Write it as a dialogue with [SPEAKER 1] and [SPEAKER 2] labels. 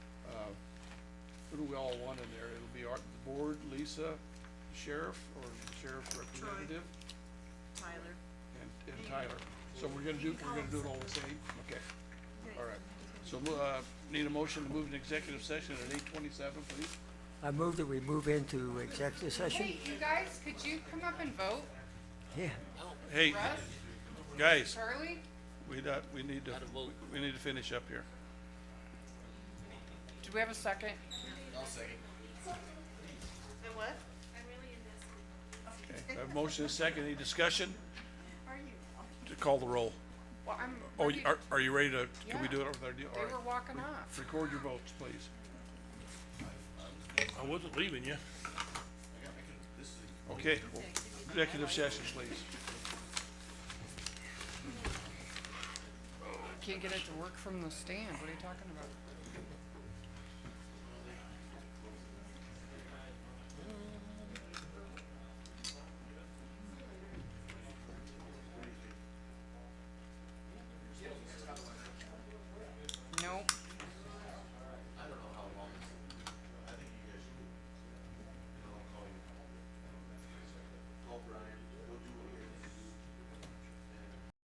[SPEAKER 1] uh, who we all want in there, it'll be our, the board, Lisa, the sheriff, or the sheriff's representative,
[SPEAKER 2] Tyler.
[SPEAKER 1] and, and Tyler. So we're gonna do, we're gonna do it all the same, okay, all right. So, mo- uh, need a motion to move an executive session at eight twenty-seven, please?
[SPEAKER 3] I move that we move into executive session.
[SPEAKER 4] Hey, you guys, could you come up and vote?
[SPEAKER 3] Yeah,
[SPEAKER 1] Hey,
[SPEAKER 4] Russ,
[SPEAKER 1] guys,
[SPEAKER 4] Charlie?
[SPEAKER 1] we, not- we need to, we need to finish up here.
[SPEAKER 4] Do we have a second?
[SPEAKER 2] And what?
[SPEAKER 1] Okay, I have motion and second, any discussion? To call the roll.
[SPEAKER 4] Well, I'm.
[SPEAKER 1] Oh,
[SPEAKER 4] ready-
[SPEAKER 1] you- are, are you ready to, can we
[SPEAKER 4] Yeah.
[SPEAKER 1] do it over there? Do-
[SPEAKER 4] They
[SPEAKER 1] all right.
[SPEAKER 4] were walking off.
[SPEAKER 1] Record your votes, please.
[SPEAKER 5] I wasn't leaving you.
[SPEAKER 1] Okay, well, executive session, please.
[SPEAKER 4] Can't get it to work from the stand. What are you talking about?